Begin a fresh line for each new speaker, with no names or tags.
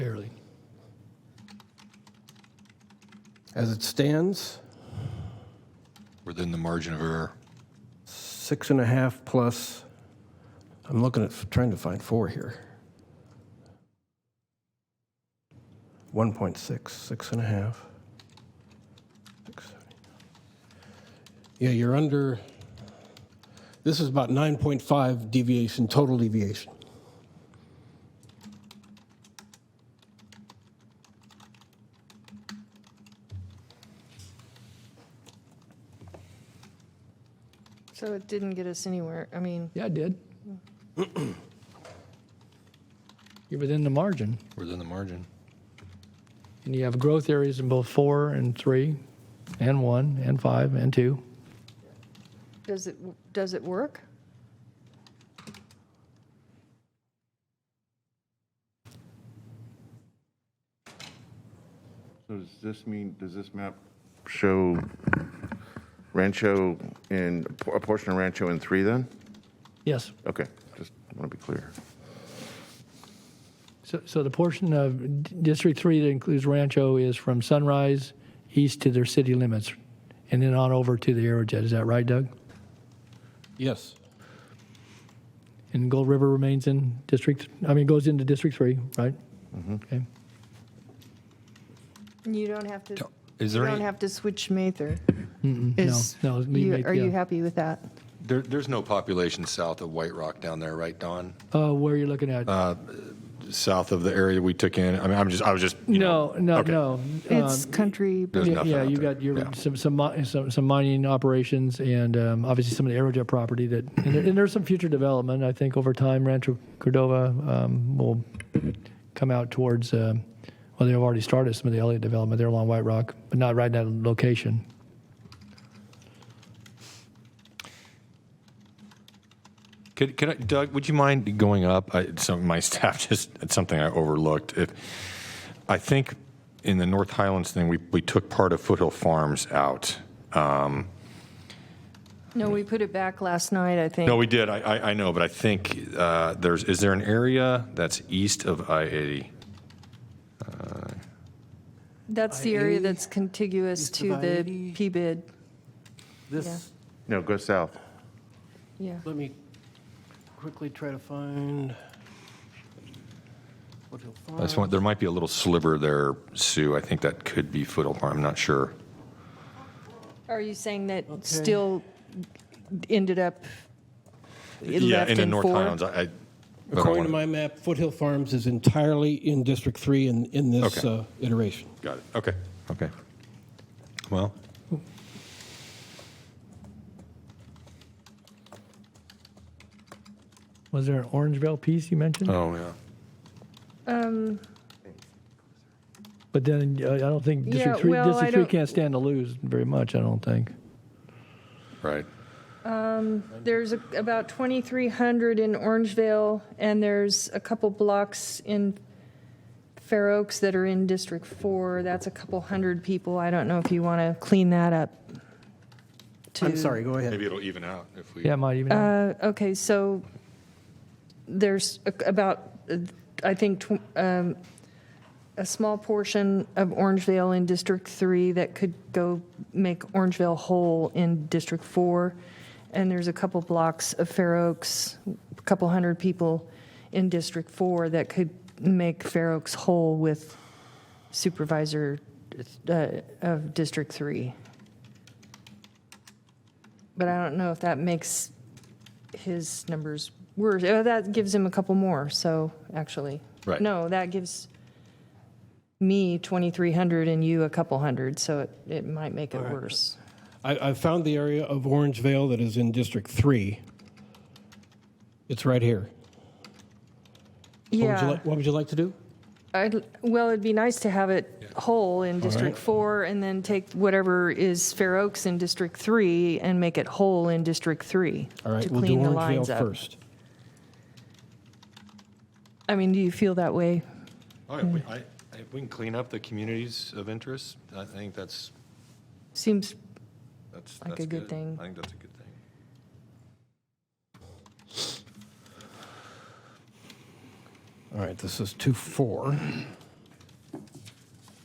fairly.
As it stands,
within the margin of error.
six and a half plus, I'm looking at, trying to find four here. 1.6, six and a half. Six, seven, eight. Yeah, you're under, this is about 9.5 deviation, total deviation.
So it didn't get us anywhere. I mean,
Yeah, I did. You're within the margin,
Within the margin.
and you have growth areas in both four and three, and one, and five, and two.
does it, does it work?
So does this mean, does this map show Rancho in, a portion of Rancho in three then?
Yes.
Okay, just want to be clear.
So, so the portion of D- District Three that includes Rancho is from Sunrise east to their city limits, and then on over to the Aerojet. Is that right, Doug?
Yes.
And Gold River remains in District. I mean, goes into District Three, right? Okay.
And You don't have to,
Is
you
there
don't
any,
have to switch Mather.
No,
Is-
no. leave
you-
Mayth-
Are you
yeah.
happy with that?
there, there's no population south of White Rock down there, right, Don?
Uh, where are you looking at?
South of the area we took in. I mean, I'm just, I was just. you
no, no,
okay.
no.
It's country,
There's
Yeah,
nothing
yeah,
out
you
there.
got your
Yeah.
some some, mi- some some mining operations and um, obviously some of the aerojet property that and, there, and there's some future development. I think over time, Rancho Cordova um, will come out towards. um well, they've already started some of the Elliott development there along White Rock, but not right in that location.
Could, could I, Doug, would you mind going up? I, some my staff just it's something I overlooked. If I think in the North Highlands thing, we, we took part of Foothill Farms out.
no, we put it back last night, I think.
No, we did. I, I, I know, but I think uh, there's is there an area that's east of I eighty?
That's the area
I-80,
that's contiguous
east
to
of
the
I-80.
P-bid,
This,
No, go south.
yeah.
let me quickly try to find. what you'll find.
That's one. There might be a little sliver there, Sue. I think that could be Foothill Farm. I'm not sure.
Are you saying that still ended up, it
yeah,
left
in the North
four?
Highlands. I, I but I
According
wanna-
to my map, Foothill Farms is entirely in District 3 in, in this
Okay.
uh, iteration.
Got it. Okay. Okay. Well,
Was there an Orangevale piece you mentioned?
oh yeah.
But then uh, I don't think
Yeah,
District Three.
well, I
District Three
don't-
can't stand to lose very much. I don't think.
Right.
There's a- about 2,300 in Orangevale, and there's a couple blocks in Fair Oaks that are in District 4. That's a couple hundred people. I don't know if you want to clean that up.
I'm
to-
sorry, go ahead.
Maybe it'll even out if we.
Yeah, it might even.
Uh, Okay, so there's a- about, uh, I think, tw- um, a small portion of Orangevale in District 3 that could go make Orangevale whole in District 4. And there's a couple blocks of Fair Oaks, a couple hundred people in District 4 that could make Fair Oaks whole with Supervisor uh, of District 3. But I don't know if that makes his numbers worse. Oh, that gives him a couple more, so, actually.
Right.
No, that gives me 2,300 and you a couple hundred, so it, it might make it worse.
I, I found the area of Orangevale that is in District 3. It's right here. What would you
Yeah.
like- What would you like to do?
I'd, well, it'd be nice to have it whole in District 4 and then take whatever is Fair Oaks in District 3 and make it whole in District 3.
All right,
to
we'll do
clean the lines
Orangevale
up.
first.
I mean, do you feel that way?
Oh, if we, I, if we can clean up the communities of interest, I think that's,
Seems,
that's,
Like a
that's
good thing.
I think that's a good thing.
All right, this is 2, 4.